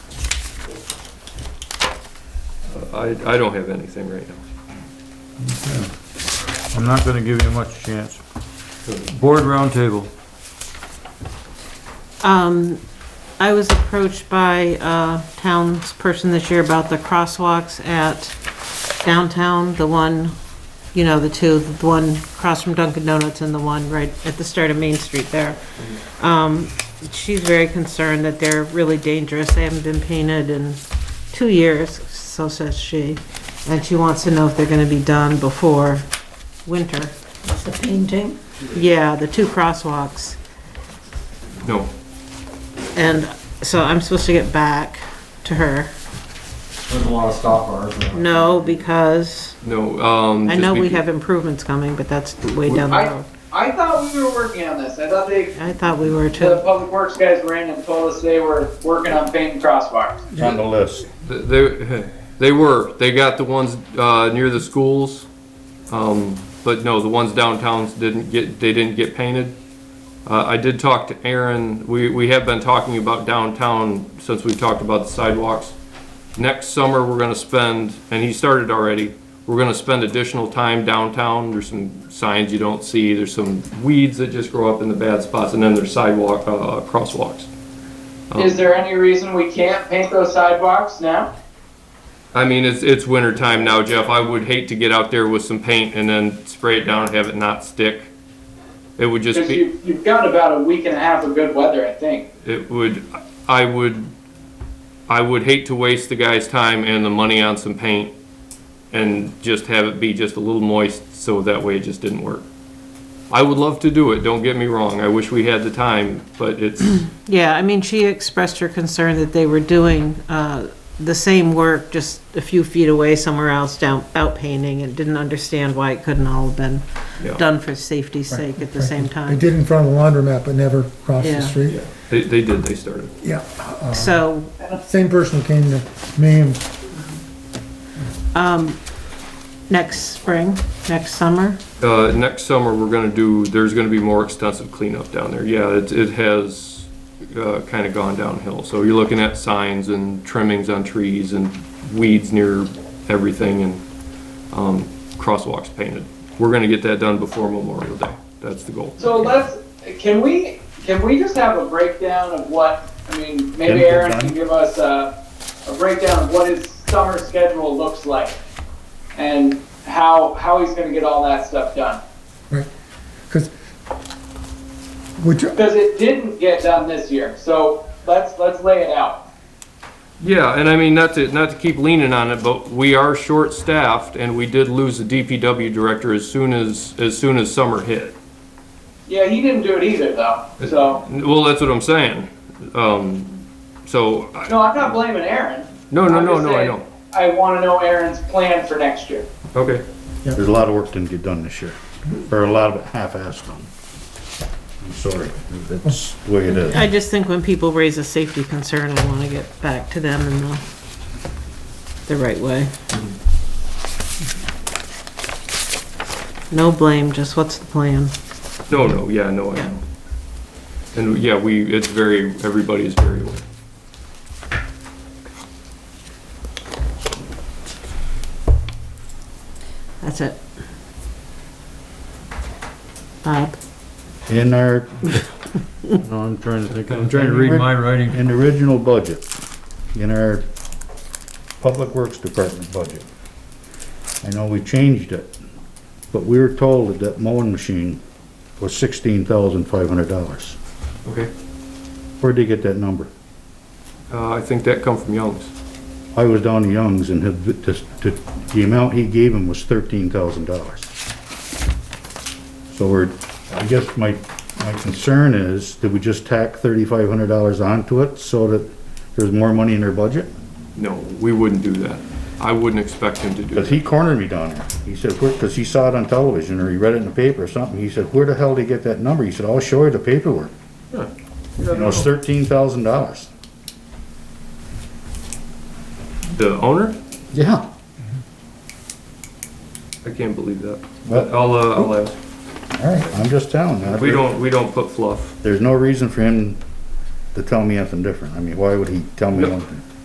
I, I don't have anything right now. I'm not gonna give you much chance. Board roundtable. Um, I was approached by a townsperson this year about the crosswalks at downtown, the one, you know, the two, the one across from Dunkin' Donuts and the one right at the start of Main Street there. Um, she's very concerned that they're really dangerous. They haven't been painted in two years, so says she. And she wants to know if they're gonna be done before winter. The painting? Yeah, the two crosswalks. No, And so I'm supposed to get back to her. There's a lot of stop bars. around. No, because no, um. I just know we be- have improvements coming, but that's way down the I- road. I thought we were working on this. I thought they, I thought we were the too. public works guys ran and told us they were working on painting crosswalks. It's on the list. They, they were, they got the ones, uh, near the schools, um, but no, the ones downtowns didn't get, they didn't get painted. Uh, I did talk to Aaron, we, we have been talking about downtown since we talked about the sidewalks. Next summer, we're gonna spend, and he started already, we're gonna spend additional time downtown, there's some signs you don't see, there's some weeds that just grow up in the bad spots, and then there's sidewalk, uh, crosswalks. Is there any reason we can't paint those sidewalks now? I mean, it's, it's winter time now, Jeff. I would hate to get out there with some paint and then spray it down and have it not stick. It would just Because be, you've, you've got about a week and a half of good weather, I think. it would, I would, I would hate to waste the guy's time and the money on some paint and just have it be just a little moist, so that way it just didn't work. I would love to do it, don't get me wrong. I wish we had the time, but it's, Yeah, I mean, she expressed her concern that they were doing, uh, the same work, just a few feet away somewhere else down, out painting and didn't understand why it couldn't all have been Yeah. done for safety's sake at the same They time. did in front of the laundromat, but never across Yeah. the street. they, they did, they started. Yeah, So same person came to me and next spring, next summer, Uh, next summer, we're gonna do, there's gonna be more extensive cleanup down there. Yeah, it, it has, uh, kinda gone downhill. So you're looking at signs and trimmings on trees and weeds near everything and, um, crosswalks painted. We're gonna get that done before Memorial Day. That's the goal. So let's, can we, can we just have a breakdown of what, I mean, maybe Painting Aaron done? can give us a, a breakdown of what his summer schedule looks like? And how, how he's gonna get all that stuff done? Because, which, Because it didn't get done this year, so let's, let's lay it out. Yeah, and I mean, not to, not to keep leaning on it, but we are short-staffed and we did lose the DPW director as soon as, as soon as summer hit. Yeah, he didn't do it either, though. So, Well, that's what I'm saying. Um, so I- no, I'm not blaming Aaron. No, no, I'm no, just no, I saying know. I want to know Aaron's plan for next year. Okay. There's a lot of work didn't get done this year, or a lot of it half-assed done. I'm sorry, that's the way it is. I just think when people raise a safety concern, I want to get back to them in the, the right way. No blame, just what's the plan? No, no, yeah, no, I know. And yeah, we, it's very, everybody is very aware. That's it. Bob? In our, no, I'm trying to think. I'm trying to read my writing. In the original budget, in our Public Works Department budget, I know we changed it, but we were told that that mowing machine was sixteen thousand five hundred dollars. Okay. Where'd they get that number? Uh, I think that come from Young's. I was down to Young's and had, the, the- the amount he gave him was thirteen thousand dollars. So we're, I guess my, my concern is, did we just tack thirty-five hundred dollars onto it so that there's more money in their budget? No, we wouldn't do that. I wouldn't expect him to do Cause that. he cornered me down there. He said, where, cause he saw it on television or he read it in the paper or something. He said, where the hell did he get that number? He said, I'll show you the paperwork. Yeah. You know, it's thirteen thousand dollars. The owner? Yeah. I can't believe that. But, all I'll, uh, I'll ask. right, I'm just telling you. We don't, we don't put fluff. There's no reason for him to tell me anything different. I mean, why would he tell me No. one thing?